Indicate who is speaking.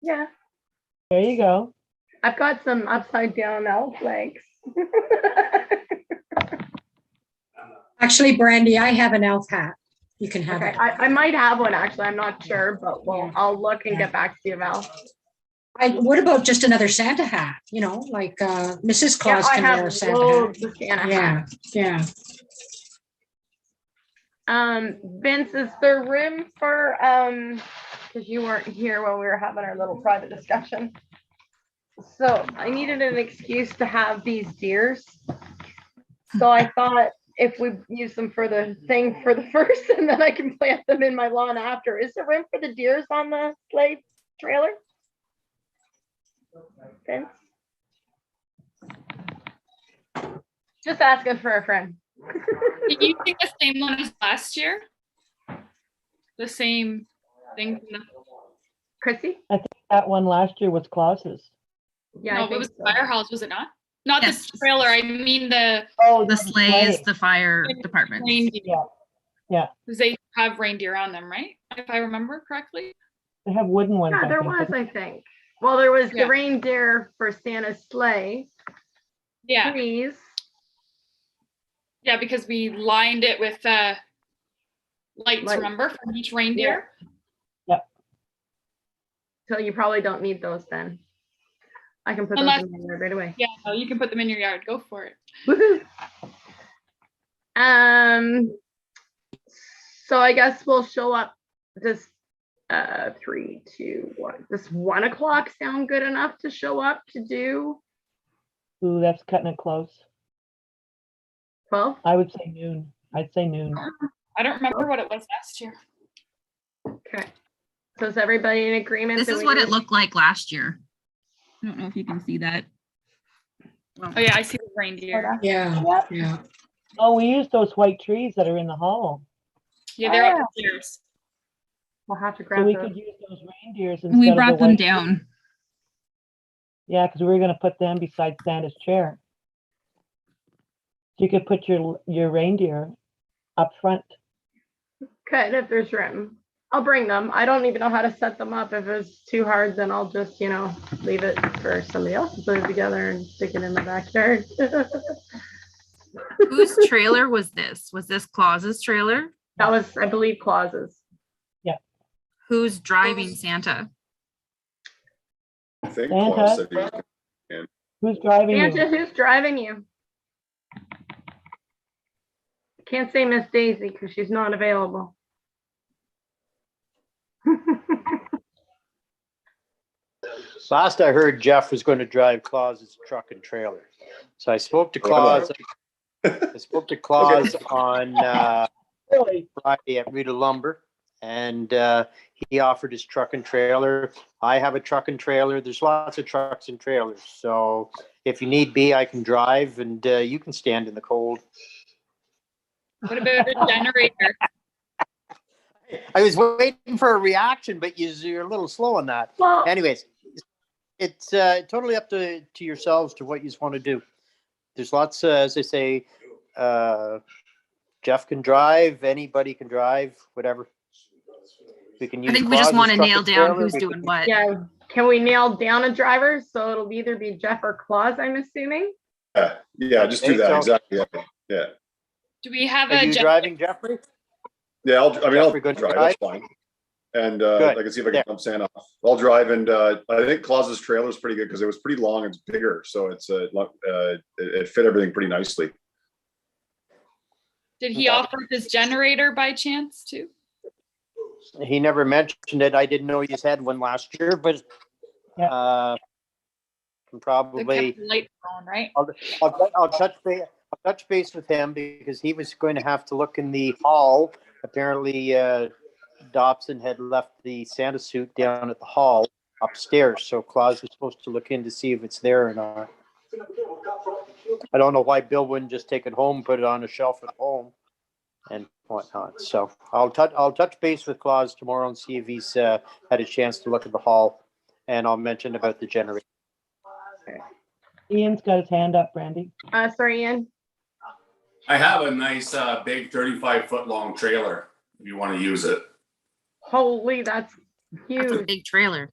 Speaker 1: Yeah,
Speaker 2: There you go.
Speaker 1: I've got some upside down owl flags.
Speaker 3: Actually, Brandy, I have an elf hat. You can have
Speaker 1: Okay,
Speaker 3: it.
Speaker 1: I, I might have one actually. I'm not sure, but well,
Speaker 3: Yeah.
Speaker 1: I'll look and
Speaker 3: Yeah.
Speaker 1: get back to you, Val.
Speaker 3: I, what about just another Santa hat? You know, like uh, Mrs.
Speaker 1: Yeah,
Speaker 3: Claus
Speaker 1: I
Speaker 3: can wear
Speaker 1: have
Speaker 3: a Santa
Speaker 1: loads of
Speaker 3: hat.
Speaker 1: Santa hats.
Speaker 3: Yeah, yeah.
Speaker 1: Um, Vince, is there room for, um, because you weren't here when we were having our little private discussion. So I needed an excuse to have these deers. So I thought if we use them for the thing for the first and then I can plant them in my lawn after. Is there room for the deers on the sleigh trailer? Vince? Just asking for a friend.
Speaker 4: Did you take the same one as last year? The same thing? from the-
Speaker 1: Chrissy?
Speaker 2: That one last year was Klaus's.
Speaker 1: Yeah, I
Speaker 4: No, it
Speaker 1: think
Speaker 4: was the
Speaker 1: so.
Speaker 4: fire halls, was it not? Not the
Speaker 5: Yes.
Speaker 4: trailer, I mean the,
Speaker 2: Oh,
Speaker 5: The sleigh is the fire
Speaker 4: Right.
Speaker 5: department.
Speaker 4: reindeer.
Speaker 2: Yeah. Yeah.
Speaker 4: 'Cause They have reindeer on them, right? If I remember correctly.
Speaker 2: They have wooden ones.
Speaker 1: Yeah,
Speaker 2: I
Speaker 1: there
Speaker 2: think,
Speaker 1: was,
Speaker 2: but-
Speaker 1: I think. Well, there was
Speaker 4: Yeah.
Speaker 1: the reindeer for Santa's sleigh,
Speaker 4: Yeah,
Speaker 1: trees.
Speaker 4: yeah, because we lined it with, uh, lights,
Speaker 1: Lights.
Speaker 4: remember, from each reindeer?
Speaker 1: So you probably don't need those then. I can put those
Speaker 4: Unless-
Speaker 1: in my yard right away.
Speaker 4: Yeah, no, you can put them in your yard, go for it.
Speaker 1: Woohoo. Um, so I guess we'll show up this, uh, three, two, one. Does one o'clock sound good enough to show up to do
Speaker 2: Ooh, that's cutting it close.
Speaker 1: twelve?
Speaker 2: I would say noon. I'd say noon.
Speaker 4: I don't remember what it was last year.
Speaker 1: Okay. So is everybody in agreement?
Speaker 5: This
Speaker 1: that
Speaker 5: is
Speaker 1: we
Speaker 5: what it
Speaker 1: do-
Speaker 5: looked like last year. I don't know if you can see that.
Speaker 4: Oh yeah, I see the reindeer.
Speaker 3: Yeah, yeah.
Speaker 2: Oh, we used those white trees that are in the hollow.
Speaker 4: Yeah, they're
Speaker 1: Ah.
Speaker 4: up the stairs.
Speaker 1: We'll have to
Speaker 2: So
Speaker 1: grab
Speaker 2: we
Speaker 1: those.
Speaker 2: could use those reindeers instead of
Speaker 5: We
Speaker 2: the
Speaker 5: brought them
Speaker 2: white-
Speaker 5: down.
Speaker 2: Yeah, because we were gonna put them beside Santa's chair. You could put your, your reindeer up front.
Speaker 1: Could if there's room. I'll bring them. I don't even know how to set them up. If it's too hard, then I'll just, you know, leave it for somebody else to put it together and stick it in the backyard. that
Speaker 5: Whose trailer was this? Was this Claus's trailer?
Speaker 1: was, I believe, clauses.
Speaker 5: Who's driving Santa?
Speaker 6: I think
Speaker 2: Santa.
Speaker 6: Claus said he was
Speaker 2: Who's driving
Speaker 1: Santa,
Speaker 2: you?
Speaker 1: who's driving you? Can't say Miss Daisy because she's not available.
Speaker 7: Last I heard Jeff was going to drive Claus's truck and trailer. So I spoke to Claus. I spoke to Claus on uh,
Speaker 2: Really?
Speaker 7: Friday at Rita Lumber. And uh, he offered his truck and trailer. I have a truck and trailer. There's lots of trucks and trailers. So if you need be, I can drive and uh, you can stand in the cold.
Speaker 4: What about a generator?
Speaker 7: I was waiting for a reaction, but you- you're a little slow on that.
Speaker 1: Well,
Speaker 7: anyways, it's uh, totally up to, to yourselves to what you want to do. There's lots, uh, as I say, uh, Jeff can drive, anybody can drive, whatever. We can
Speaker 5: I
Speaker 7: use.
Speaker 5: think we just
Speaker 7: Claus's
Speaker 5: want to
Speaker 7: truck
Speaker 5: nail
Speaker 7: and
Speaker 5: down
Speaker 7: trailer,
Speaker 5: who's
Speaker 7: we
Speaker 5: doing
Speaker 7: can-
Speaker 5: what.
Speaker 1: yeah, can we nail down a driver? So it'll either be Jeff or Claus, I'm assuming.
Speaker 6: Yeah, yeah, just do that,
Speaker 7: Okay, so-
Speaker 6: exactly. yeah, Yeah,
Speaker 4: Do we have
Speaker 7: Are
Speaker 4: a
Speaker 7: you
Speaker 4: generator?
Speaker 7: driving Jeffrey?
Speaker 6: yeah, I'll, I mean, I'll
Speaker 7: Jeffrey, good
Speaker 6: drive,
Speaker 7: drive.
Speaker 6: that's fine. And uh,
Speaker 7: Good.
Speaker 6: I can see if I
Speaker 7: There.
Speaker 6: can dump Santa off. I'll drive and uh, I think Claus's trailer is pretty good because it was pretty long, it's bigger, so it's uh, lo- uh, it it fit everything pretty nicely.
Speaker 4: Did he
Speaker 7: Okay.
Speaker 4: offer his generator by chance too?
Speaker 7: He never mentioned it. I didn't know he's had one last year, but
Speaker 2: Yeah.
Speaker 7: uh, can
Speaker 4: They
Speaker 7: probably.
Speaker 4: kept the lights on, right?
Speaker 7: I'll, tou- I'll touch base, I'll touch base with him because he was going to have to look in the hall. Apparently, uh, Dobson had left the Santa suit down at the hall upstairs, so Claus was supposed to look in to see if it's there or not. I don't know why Bill wouldn't just take it home, put it on a shelf at home and whatnot. So I'll touch, I'll touch base with Claus tomorrow and see if he's, uh, had a chance to look at the hall. And I'll mention about the generator.
Speaker 2: Ian's got his hand up, Brandy.
Speaker 1: Uh, sorry, Ian.
Speaker 8: I have a nice, uh, big thirty-five foot long trailer, if you want to use it.
Speaker 1: Holy, that's
Speaker 5: That's a
Speaker 1: huge.
Speaker 5: big trailer.